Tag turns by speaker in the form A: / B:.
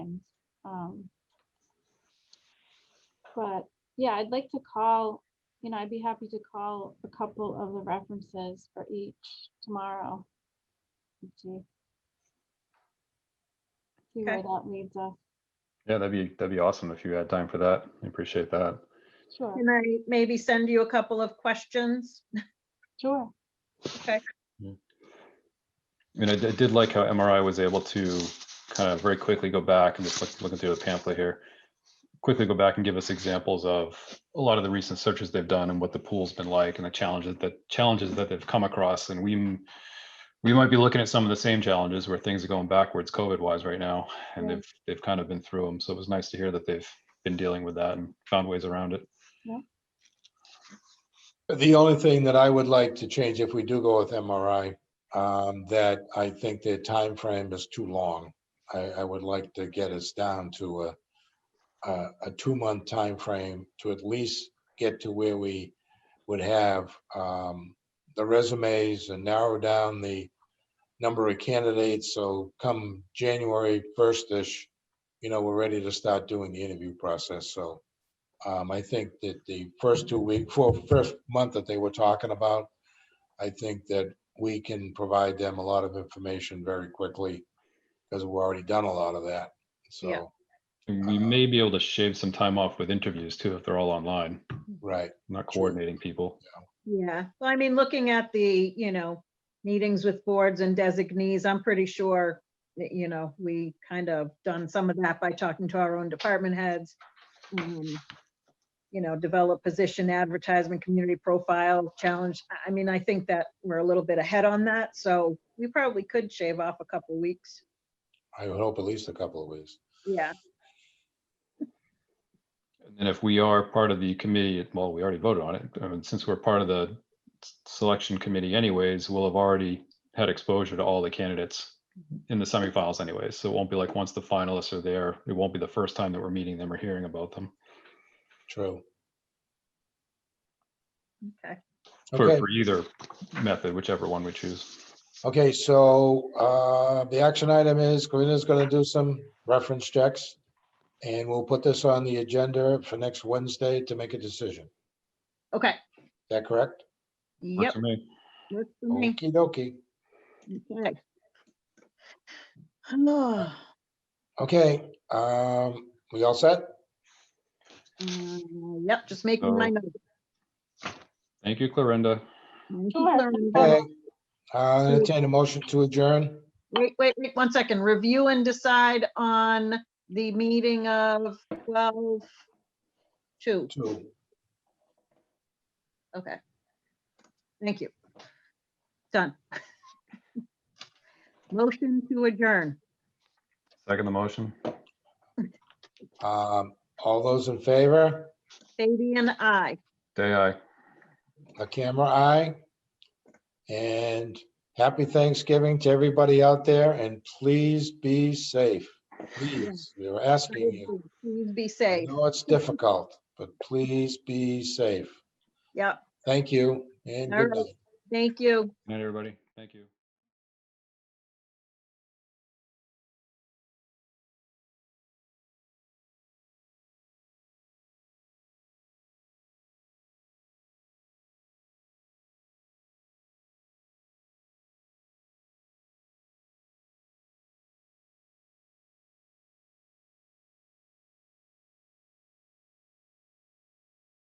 A: Um, But, yeah, I'd like to call, you know, I'd be happy to call a couple of the references for each tomorrow. and See see where
B: Okay.
A: that leads us.
C: Yeah, that'd be, that'd be awesome if you had time for that. I appreciate that.
A: Sure,
B: Can I maybe send you a couple of questions?
A: sure.
B: Okay,
C: I mean, I d- I did like how MRI was able to kind of very quickly go back and just look, looking through the pamphlet here. Quickly go back and give us examples of a lot of the recent searches they've done and what the pool's been like and the challenges that challenges that they've come across. And we m- we might be looking at some of the same challenges where things are going backwards COVID wise right now. And
A: Right.
C: they've they've kind of been through them. So it was nice to hear that they've been dealing with that and found ways around it.
D: The only thing that I would like to change if we do go with MRI, um, that I think their time frame is too long. I, I would like to get us down to a, a, a two-month time frame to at least get to where we would have, um, the resumes and narrow down the number of candidates. So come January first-ish, you know, we're ready to start doing the interview process. So um, I think that the first two week, for first month that they were talking about, I think that we can provide them a lot of information very quickly because we've already done a lot of that.
B: Yeah.
D: So,
C: And
D: Uh,
C: we may be able to shave some time off with interviews too if they're all online,
D: right,
C: not
D: True.
C: coordinating people.
B: yeah. Well, I mean, looking at the, you know, meetings with boards and designees, I'm pretty sure that, you know, we kind of done some of that by talking to our own department heads. um, You know, develop position advertisement, community profile, challenge. I- I mean, I think that we're a little bit ahead on that, so we probably could shave off a couple weeks.
D: I would hope at least a couple of weeks.
B: Yeah,
C: And if we are part of the committee, well, we already voted on it. I mean, since we're part of the s- selection committee anyways, we'll have already had exposure to all the candidates in the semifinals anyways. So it won't be like once the finalists are there, it won't be the first time that we're meeting them or hearing about them.
D: True.
B: okay.
C: For,
D: Okay.
C: for either method, whichever one we choose.
D: Okay, so uh, the action item is Corinna's going to do some reference checks. And we'll put this on the agenda for next Wednesday to make a decision. Is
B: Okay,
D: that correct?
C: Works
B: yep.
C: for me.
B: works for me.
D: Okey dokey.
B: Okay. Um,
D: Okay, um, we all set?
B: Uh, Yep, just making my
C: So-
B: notes.
C: Thank you, Clarinda.
B: Thank you,
A: Sure.
B: Clarendon.
D: Okay, uh, entertain a motion to adjourn.
B: Wait, wait, wait, one second. Review and decide on the meeting of twelve two.
D: Two.
B: Okay. Thank you. Done. Motion to adjourn.
C: Second the motion.
D: Um, all those in favor,
B: Fabi and I.
C: Day I.
D: a camera eye. And happy Thanksgiving to everybody out there and please be safe. Please, we are asking you.
B: Please be
D: I
B: safe.
D: know it's difficult, but please be safe.
B: Yep,
D: Thank you and
B: All
D: good
B: right.
D: night.
B: thank you.
C: Night, everybody. Thank you.